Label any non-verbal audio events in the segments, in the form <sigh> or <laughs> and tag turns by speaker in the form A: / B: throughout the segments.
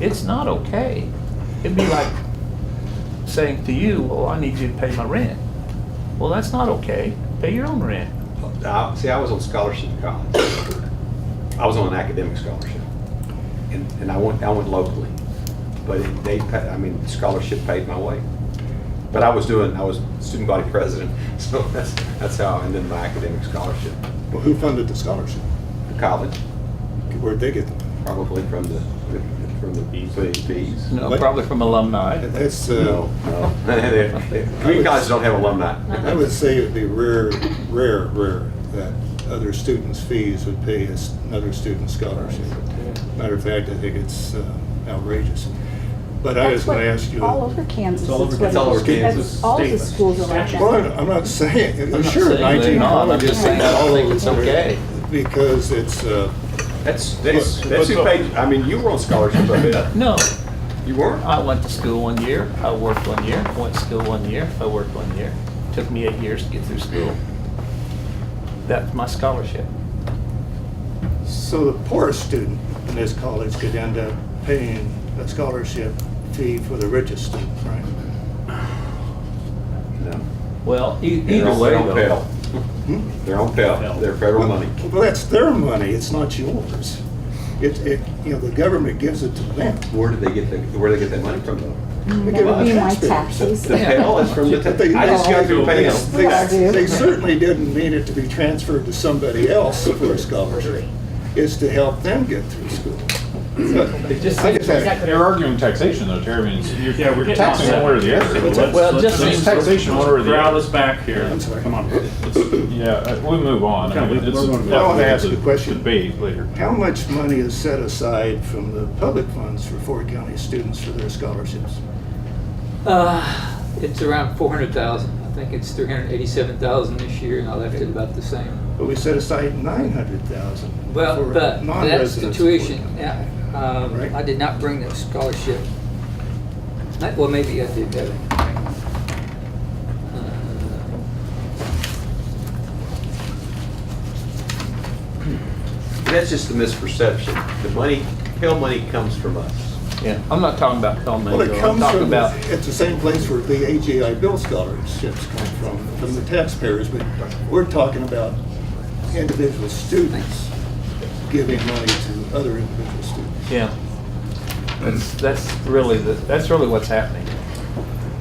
A: it's not okay. It'd be like saying to you, well, I need you to pay my rent. Well, that's not okay. Pay your own rent.
B: I- See, I was on scholarship in college. I was on an academic scholarship. And, and I went, I went locally. But it- they, pa- I mean, scholarship paid my way. But I was doing, I was student body president, <laughs> so that's, that's how, and then my academic scholarship
C: Well, who funded the scholarship?
B: to college,
C: Where'd they get the money?
B: probably from the, from the fees.
A: No,
C: What?
A: probably from alumni.
C: That's,
B: No,
C: uh,
B: no. <laughs> They- they- Community colleges don't have
C: I
B: alumni.
C: would say it'd be rare, rare, rare that other students' fees would pay us another student's scholarship. Matter of fact, I think it's uh, outrageous. But I
D: That's
C: just want to
D: what-
C: ask you. uh,
D: All over Kansas.
E: It's all over-
D: is
B: <laughs>
D: what
B: it's all
D: it
B: over
D: is. That's-
B: Kansas.
D: All the
E: State.
D: schools are like
C: Well,
D: that.
C: I'm not saying,
A: I'm not
C: sure,
A: saying they're
C: 19
A: not. I'm
C: colleges.
A: just saying I don't
C: all
A: think
C: over
A: it's
C: the country
A: okay.
C: Because it's, uh,
B: That's, that's,
C: But-
B: that's who
C: but-
B: paid, I mean, you were on scholarship, I bet.
A: No,
B: You weren't?
A: I went to school one year, I worked one year, went to school one year, I worked one year. Took me eight years to get through school. That's my scholarship.
C: so the poorest student in this college could end up paying a scholarship fee for the richest student, right?
B: No.
A: Well, e-
B: They're
A: either
B: on-
A: way
B: they're on
A: though.
C: Hmm?
B: Pell. They're on Pell, they're federal money.
C: Well, that's their money, it's not yours. It, it, you know, the government gives it to them.
B: Where did they get the, where did they get that money from though?
C: They
D: Mm, That
C: give it
D: would
C: to
D: be my
C: taxpayers.
D: taxes.
B: The Pell is from the,
C: But they-
B: ta- I just got through
C: they-
B: Pell.
C: They they certainly didn't mean it to be transferred to somebody else for a scholarship. It's to help them get through school.
A: It just
C: I
A: seems
C: just had-
F: They're arguing taxation though, Terry, I mean, it's-
E: Yeah, we're
F: you're
E: getting
F: taxing
E: off
F: one way or the
E: subject.
F: other.
E: Let's-
A: Well, it
E: let's-
A: just
E: let's-
A: seems-
F: taxation one way or the
E: Corral
F: other.
E: us back here.
C: I'm sorry.
E: Come on.
F: Yeah, uh, we move on.
E: Okay, we-
F: mean, it's-
E: we're going to-
C: I wanna ask
F: it's
C: you a question.
F: Debate later.
C: How much money is set aside from the public funds for Ford County students for their scholarships?
G: Uh, It's around 400,000. I think it's 387,000 this year, and I left it about the same.
C: But we set aside nine hundred thousand
G: Well,
C: for
G: but that's the
C: non-residents. of Ford
G: tuition.
C: County.
G: Yeah, um,
C: Right.
G: I did not bring the scholarship. Not- Well, maybe I did have it. Uh,
B: That's just a misperception. The money, Pell money comes from us.
A: Yeah, I'm not talking about Pell
C: Well,
A: Mango,
C: it
A: I'm
C: comes
A: talking
C: from,
A: about,
C: the- it's the same place where the AGI Bill scholarships come from, from the taxpayers, but we're talking about individual students giving money to other individual students.
A: yeah. That's, that's really, the that's really what's happening.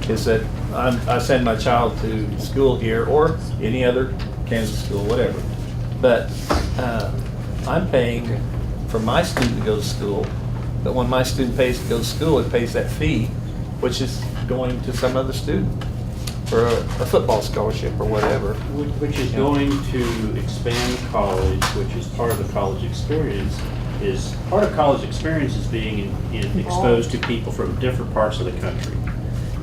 A: Is that I'm, I send my child to school here or any other Kansas school, whatever. But, uh, I'm paying for my student to go to school, but when my student pays to go to school, it pays that fee, which is going to some other student for a a football scholarship or whatever.
E: Wh- Which is
A: Yeah.
E: going to expand college, which is part of the college experience, is, part of college experience is being in- in- exposed to people from different parts of the country.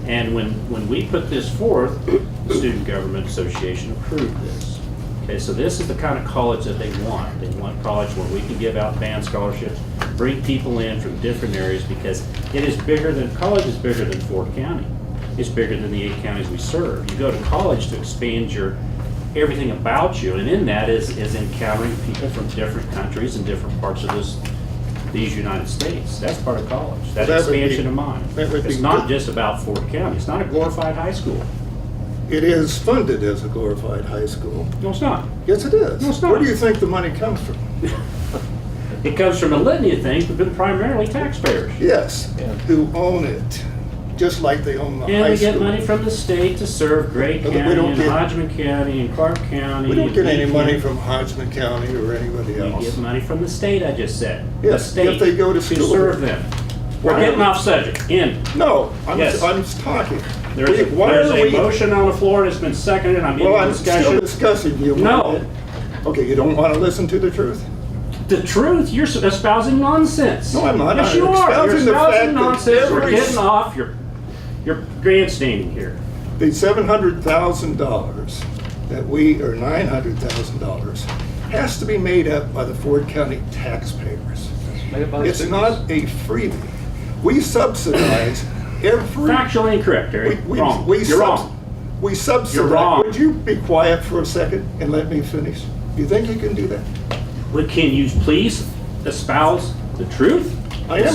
E: And when, when we put this forth, the Student Government Association approved this. Okay, so this is the kind of college that they want. They want college where we can give out band scholarships, bring people in from different areas because it is bigger than, college is bigger than Ford County. It's bigger than the eight counties we serve. You go to college to expand your, everything about you, and in that is, is encountering people from different countries and different parts of this, these United States. That's part of college. That's
C: That would be-
E: expansion of mind.
C: that would be
E: It's not
C: good.
E: just about Ford County. It's not a glorified high school.
C: It is funded as a glorified high school.
E: No, it's not.
C: Yes, it is.
E: No, it's
C: Where do
E: not.
C: you think the money comes from?
E: It comes from a litany of things, but primarily taxpayers.
C: Yes,
A: Yeah.
C: who own it, just like they own the
E: And
C: high
E: we get money
C: school.
E: from the state to serve Gray
C: But we
E: County
C: don't
E: and
C: get-
E: Hodgman County and Clark County.
C: We don't
E: and
C: get any
E: Lee
C: money
E: County.
C: from Hodgman County or anybody
E: We
C: else.
E: get money from the state, I just said. The
C: Yes, if
E: state
C: they go to school.
E: serve them. We're getting off subject. End.
C: No, I'm,
E: Yes.
C: I'm just talking.
E: There's a,
C: Why
E: there's
C: are
E: a
C: we-
E: motion on the floor that's been seconded. I'm
C: Well,
E: in
C: I'm still
E: discussion.
C: discussing you.
E: No.
C: Okay, you don't want to listen to the truth?
E: The truth, you're espousing nonsense.
C: No, I'm not.
E: Yes,
C: I'm
E: you are. You're
C: espousing the fact
E: espousing
C: that
E: nonsense. We're
C: every-
E: getting off your, your grandstanding here.
C: The seven hundred thousand dollars that we, or nine hundred thousand dollars, has to be made up by the Ford County taxpayers. It's not a freebie. We subsidize every.
E: Factually incorrect,
C: we-
E: Eric.
C: we-
E: Wrong.
C: we
E: You're
C: subs-
E: wrong.
C: We subsidize.
E: wrong.
C: Would you be quiet for a second and let me finish? You think you can do that?
E: Well, Can you please espouse the truth?
C: I am